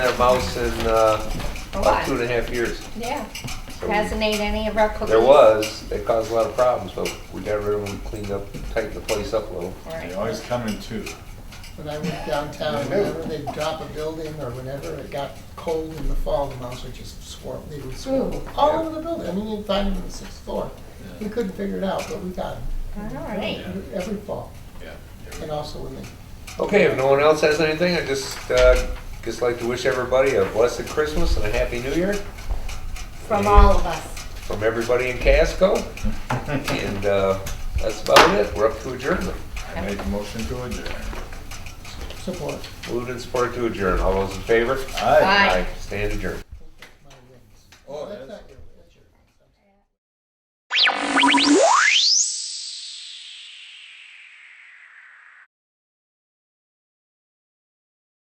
a mouse in uh, A about lot. two and a half years. Oh, Yeah. So we- Hasn't ate any of our cookies. There was, they caused a lot of problems, but we got rid of them, cleaned up, tightened the place up a little. Right. They always come in two. When I went downtown, whenever they drop a building or whenever it got cold in the fall, the mouse would just swarm, they would swarm Ooh. all over the building. I mean, you'd find them on the sixth floor. We couldn't figure it out, but we got All right. them every fall, Yeah. and also when they Okay, if no one else has anything, I'd just, uh, just like to wish everybody a blessed Christmas and a happy new year From all of us. from everybody in Casco. And uh, that's about it, we're up to adjournment. I make a motion to adjourn. support Moved and supported to adjourn, all those in favor? Aye. Aye. Stand adjourned. my wings. Oh, that's